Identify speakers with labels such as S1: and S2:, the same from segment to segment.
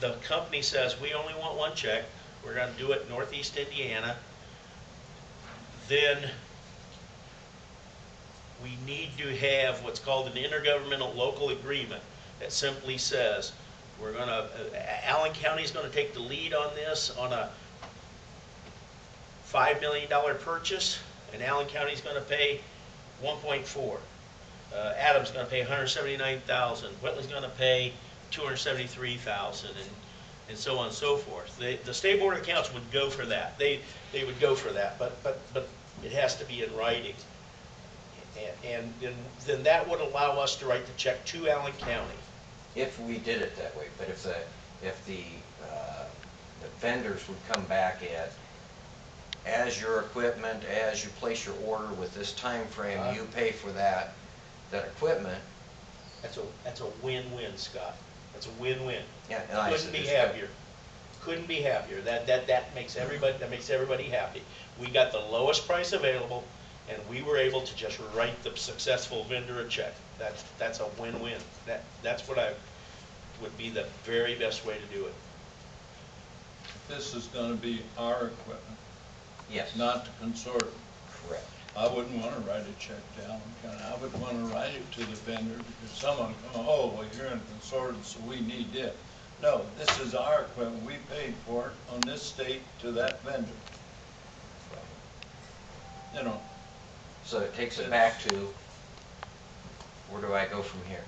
S1: the company says, we only want one check, we're gonna do it northeast Indiana, then we need to have what's called an intergovernmental local agreement that simply says, we're gonna, uh, Allen County's gonna take the lead on this on a five million dollar purchase, and Allen County's gonna pay one point four. Uh, Adams gonna pay 179,000. hundred seventy-nine thousand, Whitley's gonna pay two hundred seventy-three thousand, and, and so on and so forth. The, the state board of accounts would go for that, they, they would go for that, but, but, but it has to be in writing. And- And, then, then that would allow us to write the check to Allen County.
S2: If we did it that way, but if the, if the, uh, the vendors would come back at, as your equipment, as you place your order with this time frame,
S1: Uh-huh.
S2: you pay for that, that equipment,
S1: That's a, that's a win-win, Scott. That's a win-win.
S2: yeah, and I
S1: Couldn't
S2: said.
S1: be
S2: this-
S1: happier. Couldn't be happier. That, that, that makes everybody, that makes everybody happy. We got the lowest price available, and we were able to just write the successful vendor a check. That's, that's a win-win. That, that's what I, would be the very best way to do it.
S3: This is gonna be our equipment,
S2: Yes,
S3: not the consortium.
S2: correct.
S3: I wouldn't wanna write a check to Allen County, I would wanna write it to the vendor, because someone come, oh, well, you're in a consortium, so we need it. No, this is our equipment, we paid for it on this date to that vendor. You know,
S2: So it takes it back to, where do I go from here?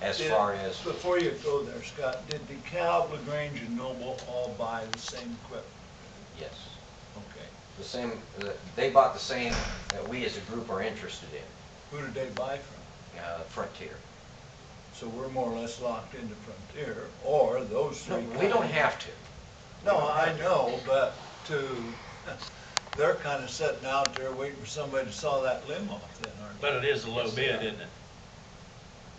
S2: As
S4: Did-
S2: far as,
S4: Before you go there, Scott, did the DeKalb, LaGrange, and Noble all buy the same equipment?
S2: yes,
S4: Okay.
S2: the same, the- they bought the same that we as a group are interested in,
S4: Who did they buy from?
S2: uh, Frontier.
S4: So we're more or less locked into Frontier, or those
S2: No,
S4: three.
S2: We don't
S4: companies.
S2: have to.
S4: No, I know, but to, they're kind of sitting out there waiting for somebody to saw that limb off then, aren't they?
S1: But it is a low bid, isn't it?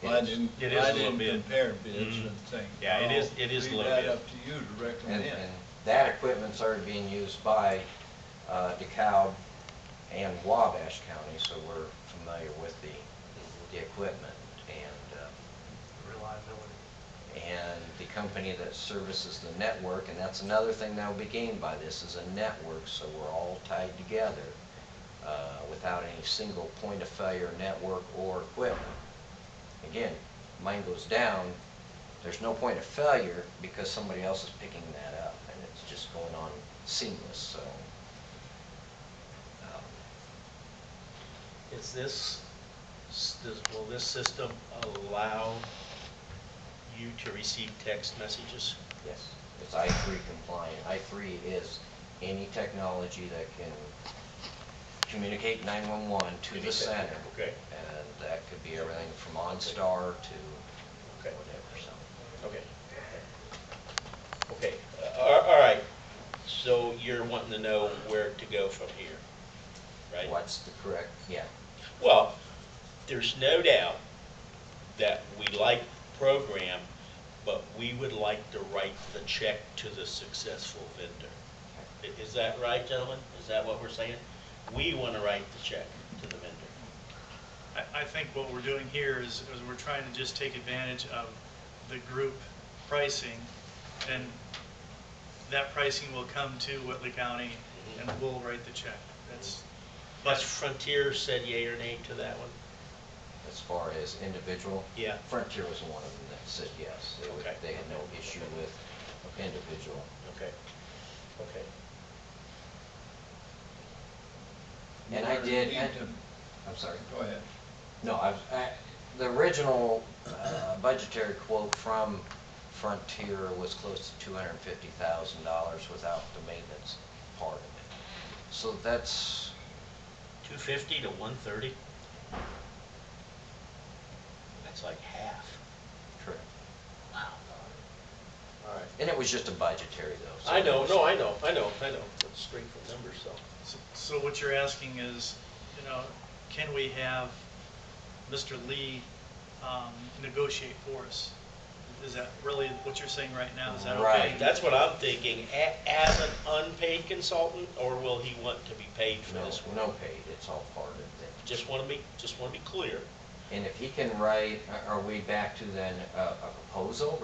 S4: I didn't,
S1: It is a
S4: I
S1: little
S4: didn't
S1: bid.
S4: compare bids
S1: Mhm.
S4: and things.
S1: Yeah, it is- it is a little
S4: Leave
S1: bid.
S4: that up to you to
S2: And,
S4: recommend.
S2: and that equipment's already being used by uh, DeKalb and Wabash County, so we're familiar with the, with the equipment. And, uh,
S5: reliability.
S2: and the company that services the network, and that's another thing that will be gained by this, is a network, so we're all tied together uh, without any single point of failure network or equipment. Again, mine goes down, there's no point of failure because somebody else is picking that up, and it's just going on seamless, so. um,
S1: Is this, s- does- will this system allow you to receive text messages?
S2: Yes, it's I three compliant. I three is any technology that can communicate nine-one-one to the center.
S1: Okay.
S2: And that could be everything from OnStar to
S1: Okay.
S2: whatever, so.
S1: Okay. Okay, uh, all all right, so you're wanting to know where to go from here, right?
S2: What's the correct, yeah,
S1: Well, there's no doubt that we like the program, but we would like to write the check to the successful vendor. I- Is that right, gentlemen? Is that what we're saying? We want to write the check to the vendor.
S5: I, I think what we're doing here is, is we're trying to just take advantage of the group pricing, and that pricing will come to Whitley County,
S1: Mm-hmm.
S5: and we'll write the check. That's,
S1: Plus Frontier said yea or nay to that one?
S2: as far as individual.
S1: Yeah.
S2: Frontier was one of them that said yes. They would,
S1: Okay.
S2: they had no issue with individual.
S1: Okay, okay.
S2: And I did,
S3: we
S2: and-
S3: need to-
S2: I'm sorry.
S3: Go ahead.
S2: No, I, I, the original uh, budgetary quote from Frontier was close to two hundred and fifty thousand dollars without the maintenance part of it. So that's,
S1: 250 to 130? That's like half.
S2: correct.
S1: Wow. All right.
S2: and it was just a budgetary though. so
S1: I know,
S2: it
S1: no,
S2: was-
S1: I know, I know, I know. It's straight from numbers, so.
S5: so- so what you're asking is, you know, can we have Mr. Lee um, negotiate for us? Is that really what you're saying right now? Is that okay?
S2: Right.
S1: That's what I'm thinking. A- As an unpaid consultant, or will he want to be paid for
S2: No,
S1: this?
S2: no paid, it's all part of it.
S1: Just want to be, just want to be clear.
S2: And if he can write, are- are we back to then a a proposal